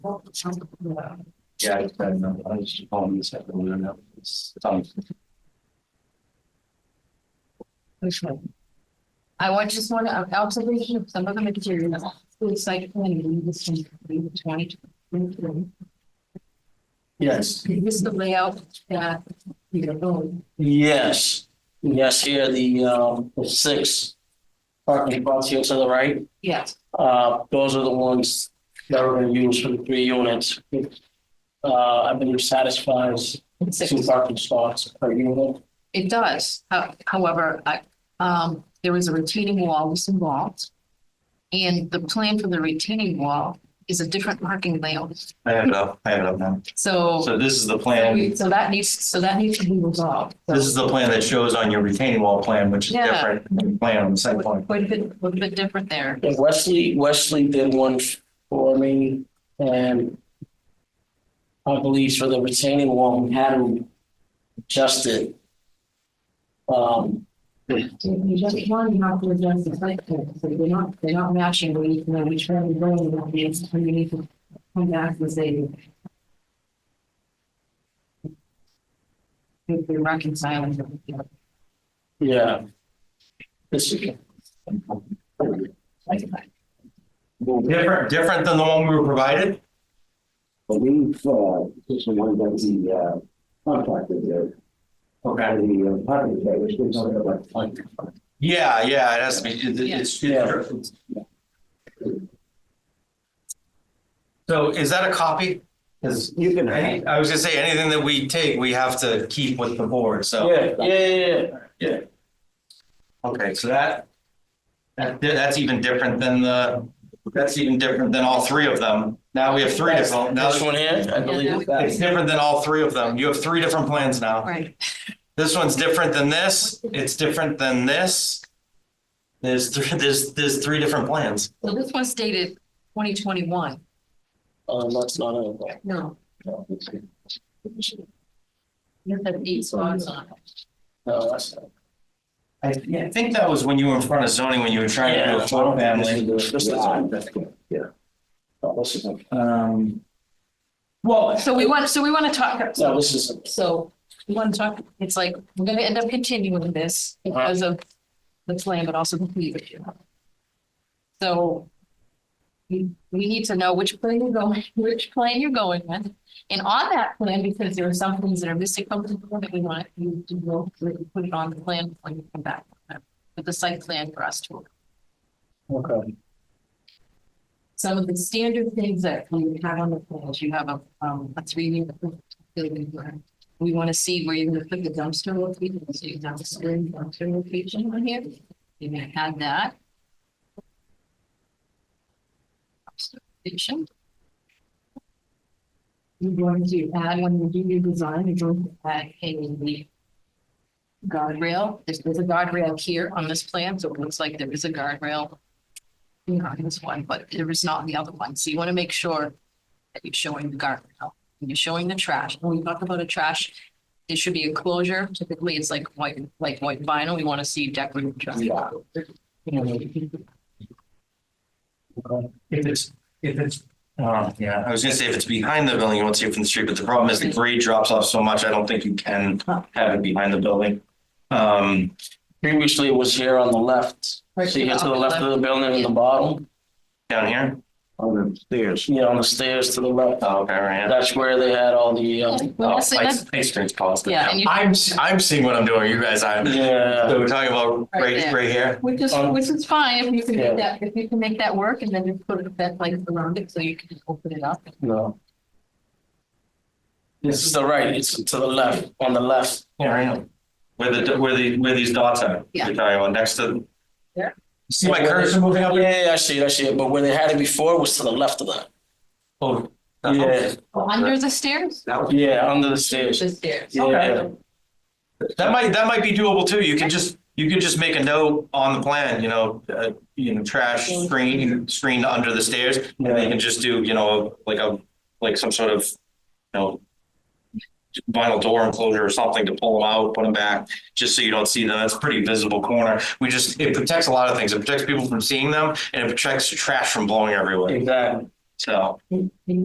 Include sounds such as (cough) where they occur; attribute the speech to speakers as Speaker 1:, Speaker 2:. Speaker 1: Yeah, it's been, uh, I was just calling this up and we don't know. It's time.
Speaker 2: Which one? I want just one of observation of some of the material, school site planning, this is twenty twenty.
Speaker 1: Yes,
Speaker 2: This is the layout that we are going.
Speaker 3: Yes, yes, here, the, um, the six parking spots here to the right,
Speaker 2: Yes,
Speaker 3: uh, those are the ones that are gonna use for the three units. Uh, I believe satisfies
Speaker 2: it's six.
Speaker 3: two parking spots per unit.
Speaker 2: it does. How- However, I, um, there is a retaining wall that's involved. And the plan for the retaining wall is a different parking layout.
Speaker 1: I have it up. I have it up now.
Speaker 2: So,
Speaker 1: So this is the plan.
Speaker 2: so that needs, so that needs to be resolved. So-
Speaker 1: This is the plan that shows on your retaining wall plan, which is
Speaker 2: Yeah.
Speaker 1: different than the plan on the site plan.
Speaker 2: Quite a bit, quite a bit different there.
Speaker 3: And Wesley, Wesley did one for me, and I believe for the retaining wall, we had to adjust it. Um,
Speaker 2: If you just one, you have to adjust the site plan, so they're not, they're not matching where you know which one you're going, that means you need to come back and say. If they're reconciling. them, you know,
Speaker 3: yeah. This,
Speaker 2: like that.
Speaker 1: Different, different than the one we were provided?
Speaker 4: believe, uh, this is one that the, uh, contractor did,
Speaker 1: Okay.
Speaker 4: and the uh, apartment that was been talking about.
Speaker 1: Yeah, yeah, it has to be, it- it- it's,
Speaker 3: Yeah.
Speaker 1: it's. So is that a copy? Is,
Speaker 4: You can
Speaker 1: any- I was gonna say, anything that we take, we have to keep with the board, so,
Speaker 3: yeah, yeah, yeah, yeah.
Speaker 1: okay, so that. That, that's even different than the, that's even different than all three of them. Now we have three different, now
Speaker 3: This one here, I believe it's
Speaker 1: it's
Speaker 3: that.
Speaker 1: different than all three of them. You have three different plans now.
Speaker 2: Right,
Speaker 1: This one's different than this, it's different than this. There's, thr- there's, there's three different plans.
Speaker 2: so this one's dated twenty twenty-one.
Speaker 3: Um, that's not it.
Speaker 2: No. You have eight spots on it.
Speaker 3: No, that's not.
Speaker 1: I I think that was when you were in front of zoning, when you were trying to do a flood family.
Speaker 4: This is,
Speaker 3: Yeah.
Speaker 4: that's good, yeah. Oh, this is,
Speaker 1: Um, Well,
Speaker 2: So we want, so we want to talk,
Speaker 3: No, this isn't.
Speaker 2: So we want to talk, it's like, we're gonna end up continuing this because of the plan, but also the fee issue. So we, we need to know which plan you're going, (laughs) which plan you're going with. And on that plan, because there are some things that are missing from the plan that we want you to go through and put it on the plan before you come back. With the site plan for us to,
Speaker 3: Okay.
Speaker 2: some of the standard things that we have on the plans, you have a, um, a three-year building plan. We want to see where you're gonna put the dumpster location, so you dumpster, and dumpster location on here. You're gonna add that. Dumpster Location. You're going to add, when you do your design, you're going to add a guardrail. There's, there's a guardrail here on this plan, so it looks like there is a guardrail. You know, in this one, but there is not in the other one. So you want to make sure that you're showing the guardrail and you're showing the trash, when we talk about a trash, there should be a closure, typically it's like white, like white vinyl, we wanna see decorative trash.
Speaker 3: Yeah.
Speaker 1: if it's, if it's, uh, yeah, I was gonna say if it's behind the building, you won't see it from the street, but the problem is the grade drops off so much, I don't think you can have it behind the building. Um,
Speaker 3: Previously it was here on the left. So you get to the left of the building in the bottom,
Speaker 1: down here?
Speaker 4: on the stairs.
Speaker 3: you know, on the stairs to the left.
Speaker 1: Oh, okay, right. yeah.
Speaker 3: That's where they had all the, uh,
Speaker 2: Yeah, well,
Speaker 1: Oh,
Speaker 2: that's-
Speaker 1: Pike-
Speaker 2: that's-
Speaker 1: Pike Street's calls.
Speaker 2: Yeah, and you-
Speaker 1: I'm, I'm seeing what I'm doing, you guys, I'm,
Speaker 3: yeah,
Speaker 1: so we're talking about
Speaker 2: Right
Speaker 1: right,
Speaker 2: there.
Speaker 1: right here.
Speaker 2: Which is,
Speaker 3: Um,
Speaker 2: which is fine, if you can
Speaker 3: yeah.
Speaker 2: make that, if you can make that work and then just put a vent like around it, so you can just open it up.
Speaker 3: no. This is the right, it's to the left, on the left.
Speaker 1: Yeah, right. Where the, where the, where these dots are.
Speaker 2: Yeah.
Speaker 1: You're talking about next to.
Speaker 2: Yeah.
Speaker 1: See my cursor moving up?
Speaker 3: Yeah, yeah, I see, it, I see, it. but where they had it before was to the left of that.
Speaker 1: Oh.
Speaker 3: Yeah,
Speaker 2: Under the stairs?
Speaker 1: That would-
Speaker 3: yeah, under the stairs.
Speaker 2: The stairs.
Speaker 3: Yeah,
Speaker 1: That might, that might be doable too. You can just, you can just make a note on the plan, you know, uh, you know, trash screen, screen under the stairs. And then you can just do, you know, like a, like some sort of, you know, vinyl door enclosure or something to pull them out, put them back, just so you don't see them. That's a pretty visible corner. We just, it protects a lot of things. It protects people from seeing them and it protects trash from blowing everywhere.
Speaker 3: exactly.
Speaker 1: So.